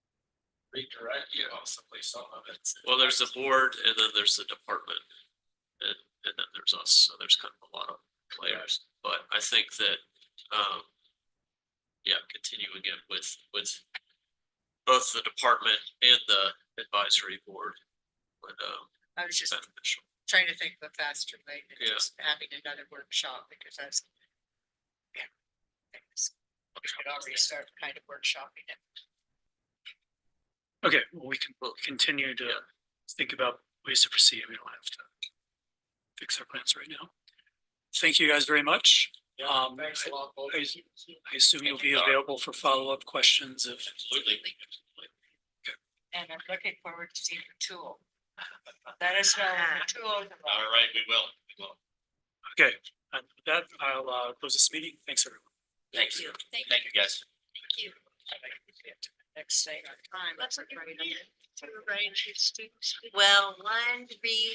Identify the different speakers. Speaker 1: redirect you possibly some of it.
Speaker 2: Well, there's the board and then there's the department. And, and then there's us, so there's kind of a lot of players, but I think that, um. Yeah, continuing it with, with both the department and the advisory board would, um,
Speaker 3: I was
Speaker 2: be
Speaker 3: just
Speaker 2: beneficial.
Speaker 3: trying to think of a faster way than
Speaker 2: Yeah.
Speaker 3: just having another workshop because I was. Yeah. Thanks. We should already start kind of workshopping it.
Speaker 4: Okay, well, we can continue to
Speaker 2: Yeah.
Speaker 4: think about ways to proceed. We don't have to fix our plans right now. Thank you guys very much. Um,
Speaker 1: Thanks a lot. both of
Speaker 4: I-
Speaker 1: you.
Speaker 4: I assume you'll be available for follow-up questions if,
Speaker 2: Absolutely.
Speaker 3: And I'm looking forward to seeing the tool. Let us know when the tool. is
Speaker 2: All
Speaker 3: available.
Speaker 2: right, we will, we will.
Speaker 4: okay. And with that, I'll uh, close this meeting. Thanks, everyone.
Speaker 2: Thank you. Thank you, guys.
Speaker 3: Next thing on time.
Speaker 5: That's what you're
Speaker 3: Right. To arrange your students.
Speaker 5: Well, one, be